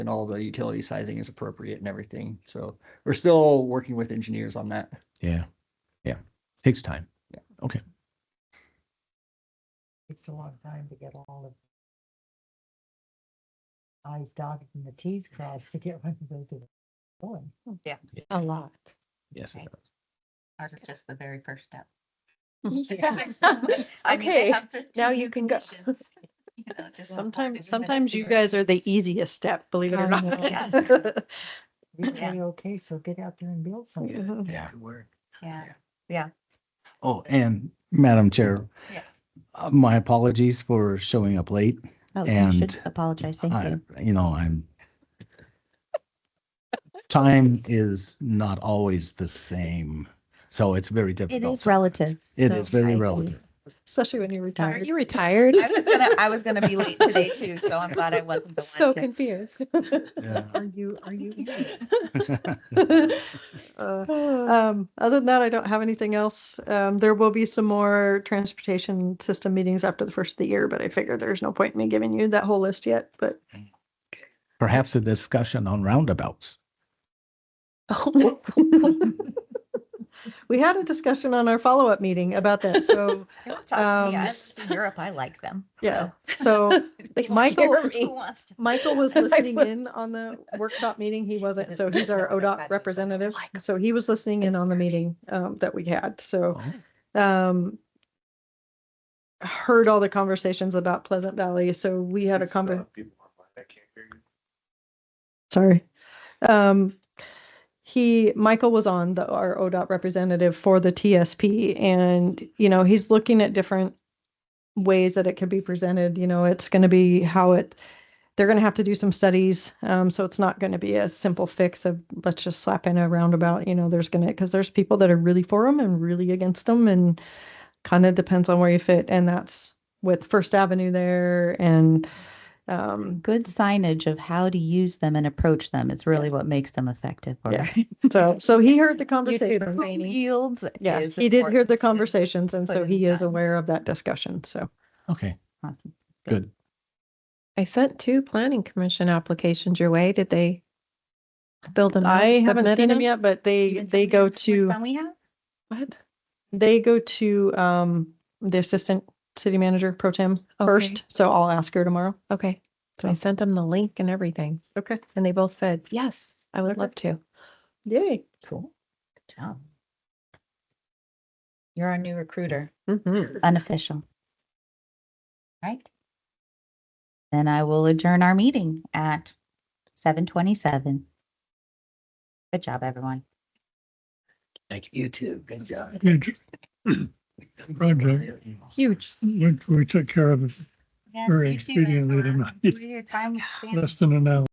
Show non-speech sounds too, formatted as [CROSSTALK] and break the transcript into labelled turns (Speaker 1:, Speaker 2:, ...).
Speaker 1: and all the utility sizing is appropriate and everything. So we're still working with engineers on that.
Speaker 2: Yeah. Yeah. Takes time.
Speaker 3: Takes a long time to get all of. I's dotted and the T's crossed to get one of those to going.
Speaker 4: Yeah.
Speaker 2: Yeah.
Speaker 3: A lot.
Speaker 2: Yes. it does.
Speaker 4: Ours is just the very first step.
Speaker 5: [LAUGHS]
Speaker 6: Okay, now you can go.
Speaker 5: [LAUGHS]
Speaker 6: Sometimes, sometimes you guys are the easiest step, believe it
Speaker 3: I
Speaker 5: [LAUGHS]
Speaker 6: or
Speaker 3: know.
Speaker 6: not.
Speaker 3: We
Speaker 4: Yeah.
Speaker 3: say, okay, so get out there and build something.
Speaker 7: Yeah.
Speaker 4: Yeah,
Speaker 7: Oh, and Madam Chair,
Speaker 4: yes.
Speaker 7: uh, my apologies for showing up late.
Speaker 4: Oh,
Speaker 7: you should And
Speaker 4: apologize.
Speaker 7: I- You know, I'm. Time is not always the same, so it's very difficult.
Speaker 3: relative.
Speaker 7: It
Speaker 3: so
Speaker 7: is very
Speaker 3: I-
Speaker 7: relative.
Speaker 6: Especially when you're
Speaker 3: Sorry.
Speaker 6: retired. Are you
Speaker 5: [LAUGHS]
Speaker 6: retired?
Speaker 4: I was gonna, I was gonna be late today too, so I'm glad I wasn't the
Speaker 6: [LAUGHS] So
Speaker 4: one. to-
Speaker 6: confused.
Speaker 7: Yeah. [LAUGHS]
Speaker 3: Are you, are you?
Speaker 6: Uh, Um, other than that, I don't have anything else. Um, there will be some more transportation system meetings after the first of the year, but I figured there's no point in me giving you that whole list yet, but.
Speaker 2: Perhaps a discussion on roundabouts.
Speaker 6: [LAUGHS] We had a discussion on our follow-up meeting about that, so,
Speaker 4: Don't talk to me. I
Speaker 6: Um,
Speaker 4: lived in Europe, I like them.
Speaker 6: yeah,
Speaker 4: so.
Speaker 6: so
Speaker 4: Who wants-
Speaker 6: Michael-
Speaker 4: who wants [LAUGHS] to-
Speaker 6: Michael was listening in on the workshop meeting. He wasn't, so he's our ODOT representative. So he was listening in on the meeting um, that we had, so. um, Heard all the conversations about Pleasant Valley, so we had a conver- Sorry. Um, he, Michael was on the, our ODOT representative for the TSP and, you know, he's looking at different ways that it could be presented. You know, it's going to be how it, they're going to have to do some studies. Um, so it's not going to be a simple fix of let's just slap in a roundabout, you know, there's going to, cause there's people that are really for them and really against them and kind of depends on where you fit. And that's with First Avenue there and, um,
Speaker 8: good signage of how to use them and approach them is really what makes them effective or
Speaker 6: Yeah. so,
Speaker 4: [LAUGHS]
Speaker 6: so he heard the
Speaker 8: YouTube
Speaker 6: [LAUGHS] conversation.
Speaker 4: Who
Speaker 8: training.
Speaker 4: Yields.
Speaker 6: Yeah,
Speaker 4: is
Speaker 6: he did hear
Speaker 4: important
Speaker 6: the
Speaker 4: and-
Speaker 6: conversations and
Speaker 4: put
Speaker 6: so
Speaker 4: in
Speaker 6: he is
Speaker 4: time.
Speaker 6: aware of that discussion. So
Speaker 2: Okay,
Speaker 8: Awesome.
Speaker 2: good.
Speaker 5: I sent two planning commission applications your way. Did they build them? out,
Speaker 6: I haven't
Speaker 5: submit
Speaker 6: seen him
Speaker 5: them?
Speaker 6: yet, but
Speaker 4: You
Speaker 6: they,
Speaker 4: been
Speaker 6: they
Speaker 4: telling them how
Speaker 6: go
Speaker 4: much
Speaker 6: to,
Speaker 4: fun we have?
Speaker 6: what? They go to, um, the assistant city manager pro tem first.
Speaker 5: Okay.
Speaker 6: So I'll ask her tomorrow.
Speaker 5: Okay, so I
Speaker 6: So-
Speaker 5: sent them the link and everything,
Speaker 6: Okay.
Speaker 5: and they both said, yes, I would
Speaker 6: Okay.
Speaker 5: love to.
Speaker 6: Yay.
Speaker 8: Cool.
Speaker 4: Good job. You're our new recruiter,
Speaker 8: Unofficial.
Speaker 4: right?
Speaker 8: Then I will adjourn our meeting at 7:27. Good job, everyone.
Speaker 1: You too. Good job.
Speaker 9: huge project,
Speaker 5: Huge.
Speaker 9: which we took care of
Speaker 4: Yeah,
Speaker 9: Very
Speaker 4: you too, Ed,
Speaker 9: expediently
Speaker 4: for
Speaker 9: tonight.
Speaker 4: your time with Stan.
Speaker 9: less than an hour.